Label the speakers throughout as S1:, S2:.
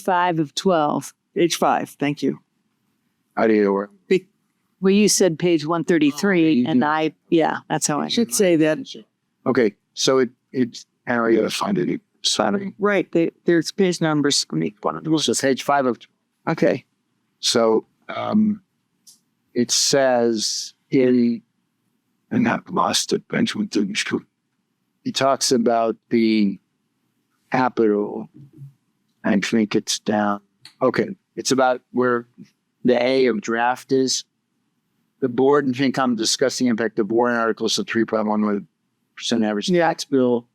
S1: five of 12,
S2: Page five, thank you.
S3: How do you work?
S1: where you said page 133,
S3: you
S1: and
S3: do.
S1: I, yeah, that's how I.
S2: Should say that,
S3: Okay, so it, it's, how are you gonna find it? Sorry.
S2: right, they, there's page numbers on each one of those.
S3: So page five of,
S2: Okay,
S3: so, um, it says in, and I've lost it, Benjamin didn't shoot. He talks about the capital. I think it's down, okay, it's about where the A of draft is. The board and FinCom discuss the impact of warrant articles of three point one one percent average
S2: Yeah.
S3: tax bill.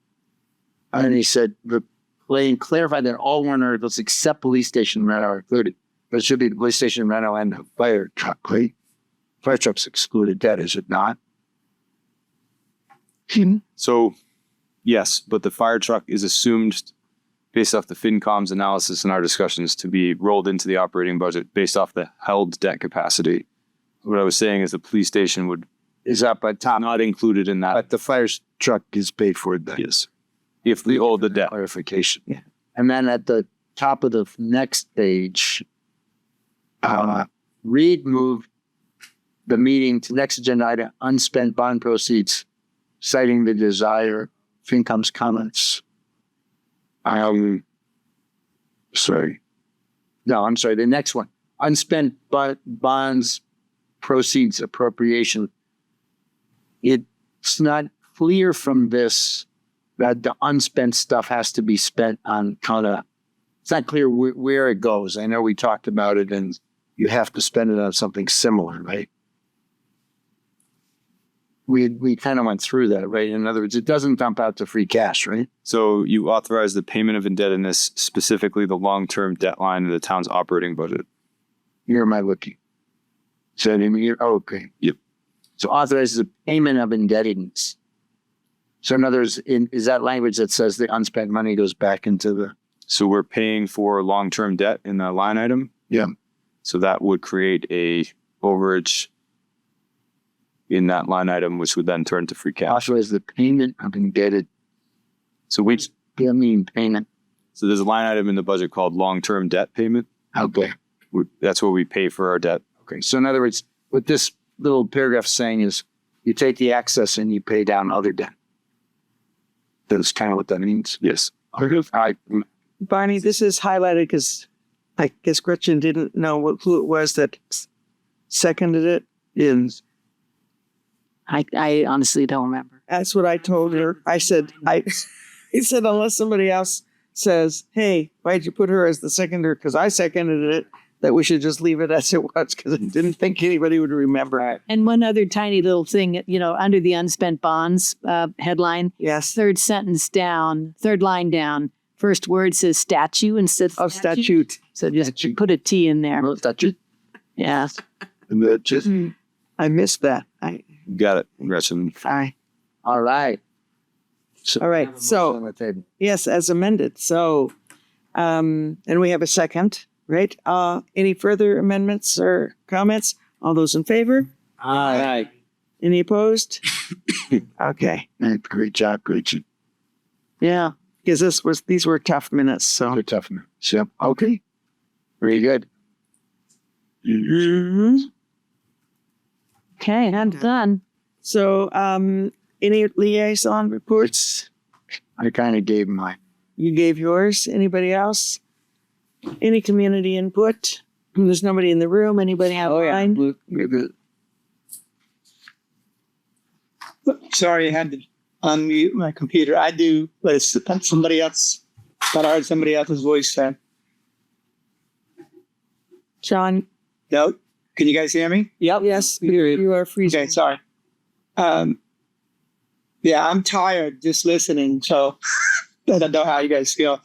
S3: And he said, the plane clarified that all warrant articles except police station rental are included. But it should be the police station rental and the fire truck, right? Fire truck's excluded debt, is it not? Hmm.
S4: So, yes, but the fire truck is assumed based off the FinCom's analysis and our discussions to be rolled into the operating budget based off the held debt capacity. What I was saying is the police station would
S3: Is up on top,
S4: not included in that
S3: but the fire s- truck is paid for then.
S4: is if we hold the debt.
S3: Clarification.
S2: Yeah.
S3: And then at the top of the f- next page, uh, Reed moved the meeting to next agenda item, unspent bond proceeds, citing the desire, FinCom's comments. Um, sorry. No, I'm sorry, the next one, unspent bu- bonds proceeds appropriation. It's not clear from this that the unspent stuff has to be spent on kind of it's not clear where, where it goes i know we talked about it and you have to spend it on something similar right we we kind of went through that right in other words it doesn't dump out to free cash right
S4: So you authorize the payment of indebtedness, specifically the long-term debt line of the town's operating budget.
S3: here am i looking so in here oh, okay
S4: Yep.
S3: so authorizes the payment of indebtedness so in other words in, is that language that says the unspent money goes back into the
S4: So we're paying for long-term debt in that line item.
S3: Yeah.
S4: So that would create a overage in that line item, which would then turn to free cash.
S3: authorize the payment of indebted
S4: So we
S3: i mean payment
S4: so there's a line item in the budget called long-term debt payment.
S3: okay
S4: We, that's where we pay for our debt.
S3: Okay, so in other words, what this little paragraph is saying is you take the excess and you pay down other debt. That's kind of what that means.
S4: Yes.
S3: I,
S2: Barney, this is highlighted because I guess Gretchen didn't know what, who it was that s- seconded it. And
S1: I, I honestly don't remember.
S2: that's what I told her. I said, I, I said, unless somebody else says, hey, why'd you put her as the seconder? Because I seconded it, that we should just leave it as it was because I didn't think anybody would remember it.
S1: And one other tiny little thing, you know, under the unspent bonds uh, headline,
S2: Yes.
S1: third sentence down, third line down, first word says statue instead
S2: Of
S1: of statute.
S2: Oh, statute.
S1: So just put a T in there. Yeah.
S2: I missed that. I,
S4: Got it, Gretchen.
S2: I,
S3: Mm-hmm. all right.
S2: all right. So.
S3: On the table.
S2: Yes, as amended. So, um, and we have a second, right? Uh, any further amendments or comments? All those in favor?
S3: All right.
S2: Any opposed? Okay,
S3: Great job, great job.
S2: yeah, because this was, these were tough minutes, so.
S3: You're tough man. So, okay. Very good.
S2: Mm-hmm.
S1: Okay, I'm done.
S2: So, um, any liaison reports?
S3: I kind of gave my,
S2: You gave yours. Anybody else? Any community input? There's nobody in the room. Anybody
S3: Oh,
S2: have online?
S5: Sorry, I had to unmute my computer. I do, but it's somebody else. Thought I heard somebody else's voice then.
S2: John?
S5: No, can you guys hear me?
S2: Yep. Yes, you are freezing.
S5: Okay, sorry. Um, yeah, I'm tired just listening, so I don't know how you guys feel.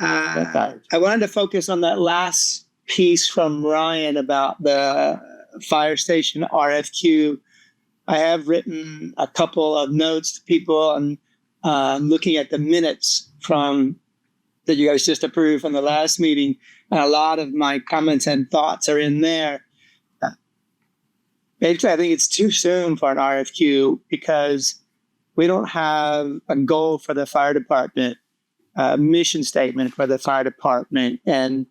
S5: Uh, I wanted to focus on that last piece from Ryan about the fire station RFQ. I have written a couple of notes to people and uh, looking at the minutes from that you guys just approved from the last meeting, and a lot of my comments and thoughts are in there. Basically, I think it's too soon for an RFQ because we don't have a goal for the fire department. uh, mission statement for the fire department. And